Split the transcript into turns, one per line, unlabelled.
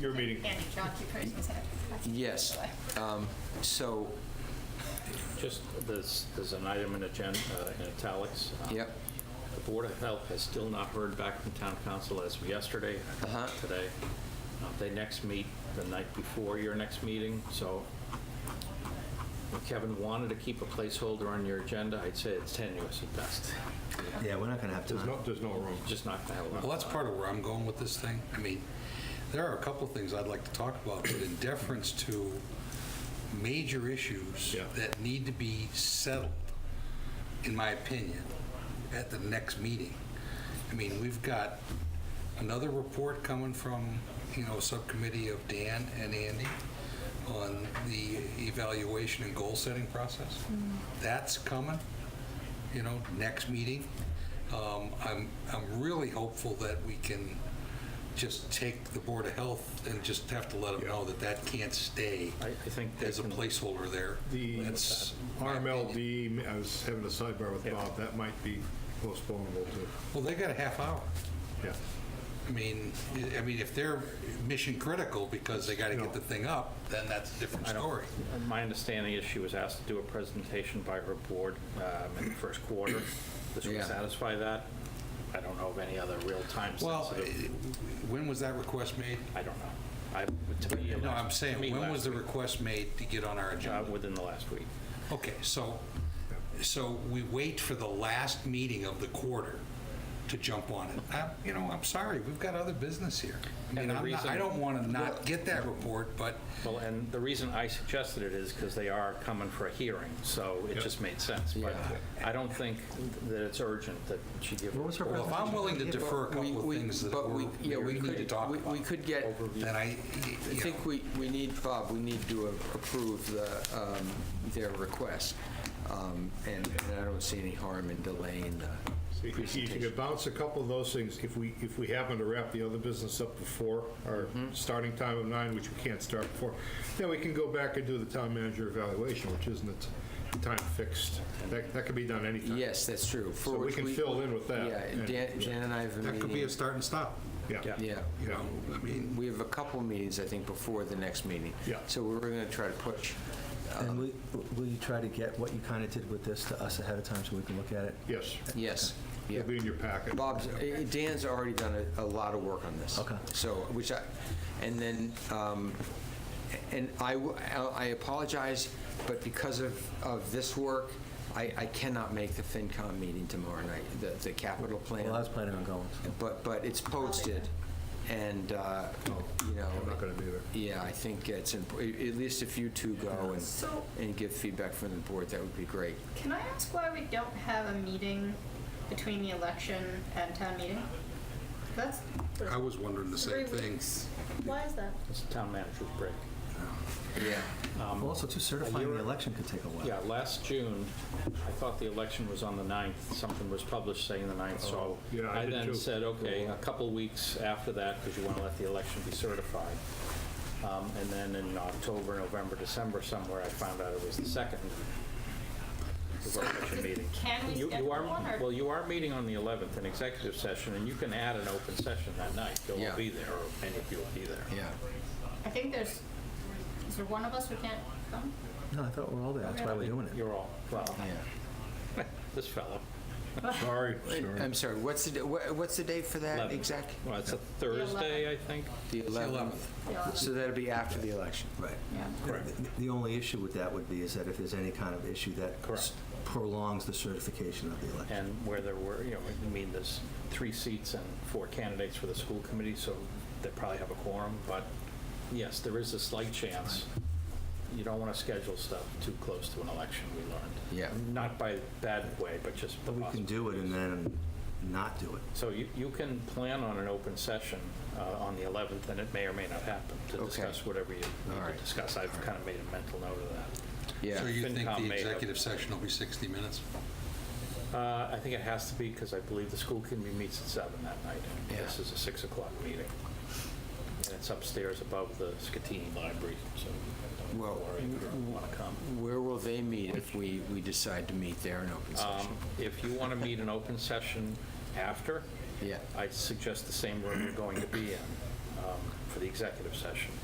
Your meeting.
Andy, John, keep raising his hand.
Yes. Um, So,
Just, there's, there's an item in agenda, in italics. Uh,
Yep.
The Board of Health has still not heard back from town council as of yesterday,
Uh-huh.
today. Uh, They next meet the night before your next meeting, so if Kevin wanted to keep a placeholder on your agenda, I'd say it's tenuous at best.
Yeah, we're not going to have
There's
time.
no, there's no room.
Just not gonna have a lot. of
Well, that's
time.
part of where I'm going with this thing. I mean, there are a couple of things I'd like to talk about, but in deference to major issues
Yeah.
that need to be settled, in my opinion, at the next meeting. I mean, we've got another report coming from, you know, a subcommittee of Dan and Andy on the evaluation and goal-setting process. That's coming, you know, next meeting. Um, I'm, I'm really hopeful that we can just take the Board of Health and just have to let them know that that can't stay
I, I think they
as a
can-
placeholder there.
The
That's my opinion.
RMLD, I was having a sidebar with Bob, that might be postponable too.
Well, they got a half hour.
Yeah.
I mean, I- I mean, if they're mission critical because they got to
No.
get the thing up, then that's a different
I don't-
story.
My understanding is she was asked to do a presentation by her board um, in the first quarter. This would
Yeah.
satisfy that. I don't know of any other real-time
Well,
sensitive,
eh, when was that request made?
I don't know. I, to me,
No,
last-
I'm
to
saying,
me,
when was
last
the
week.
request made to get on our
Uh,
agenda?
Within the last week.
Okay, so, so we wait for the last meeting of the quarter to jump on it. I- You know, I'm sorry, we've got other business here. I mean,
the
I'm not- I
reason-
don't want to not get that report, but
Well, and the reason I suggested it is because they are coming for a hearing, so it just made sense. But I don't think that it's urgent that she give.
What was her
well, if I'm willing to defer a
We-
couple of
we-
things that
but we-
we're-
yeah, we
we need to
could-
talk
we-
about,
We could get, I
then I, you know,
think we, we need, Bob, we need to approve the, um, their request. Um, And and I don't see any harm in delaying the
If you could
presentation.
bounce a couple of those things, if we, if we happen to wrap the other business up before our starting time of nine, which we can't start before, then we can go back and do the town manager evaluation, which isn't it time fixed. That, that could be done anytime.
Yes, that's true. For
So we
which
can fill in with that.
Yeah, Dan- Jan and I have a meeting.
that could be a start and stop.
Yeah.
Yeah.
You
Yeah.
know, I mean,
We have a couple meetings, I think, before the next meeting.
Yeah.
So we're going to try to push.
And will- will you try to get what you kind of did with this to us ahead of time so we can look at it?
Yes.
Yes. Yeah.
It'll be in your packet.
Bob's, eh, Dan's already done a, a lot of work on this.
Okay.
So, which I, and then, um, and I, w- I apologize, but because of, of this work, I, I cannot make the FinCom meeting tomorrow night, the, the capital plan.
Well, I was planning on going. so.
But, but it's posted, and, uh, you know.
I'm not gonna be there.
Yeah, I think it's, imp- at at least if you two go and,
So-
and give feedback from the board, that would be great.
Can I ask why we don't have a meeting between the election and town meeting? That's
I was wondering the
three
same thing.
weeks. Why is that?
It's a town manager's break.
Yeah.
Um,
Also, too, certifying the election could take a while.
Yeah, last June, I thought the election was on the 9th, something was published saying the 9th, so
Oh, yeah, I
I
did too.
then said, okay, a couple weeks after that, because you want to let the election be certified. Um, And then in October, November, December, somewhere, I found out it was the 2nd. was our election meeting.
Can we
You- you
schedule
are-
one, or-
Well, you are meeting on the 11th, an executive session, and you can add an open session that night. Bill
Yeah.
will be there, or many of you will be there.
Yeah.
I think there's, is there one of us who can't come?
No, I thought we're all there. That's why we're doing it.
You're all, well,
Yeah.
this fellow.
Sorry, sorry.
I'm sorry, what's the, da- wha- what's the date for that
11th.
exact?
Well, it's a Thursday, I think.
The 11th.
Yeah.
So that'll be after the election.
Right.
Yeah.
The- The only issue with that would be is that if there's any kind of issue that
Correct.
prolongs the certification of the election.
and where there were, you know, I mean, there's three seats and four candidates for the school committee, so they probably have a quorum, but yes, there is a slight chance. You don't want to schedule stuff too close to an election, we learned.
Yeah.
Not by bad way, but just the
We can
possibility.
do it and then not do it.
So you, you can plan on an open session uh, on the 11th, and it may or may not happen, to
Okay.
discuss whatever you
All
need
right.
to discuss. I've kind of made a mental note of
Yeah.
So you think
FinCom
the
may have-
executive session will be 60 minutes?
that. Uh, I think it has to be, because I believe the school committee meets at seven that night.
Yeah.
This is a 6 o'clock meeting. And it's upstairs above the Scatini Library, so you
Well, mm,
don't worry if you don't want to come.
Where will they meet if we, we decide to meet there in open session?
Um, If you want to meet in open session after,
Yeah.
I'd suggest the same room you're going to be in. um, for the executive session.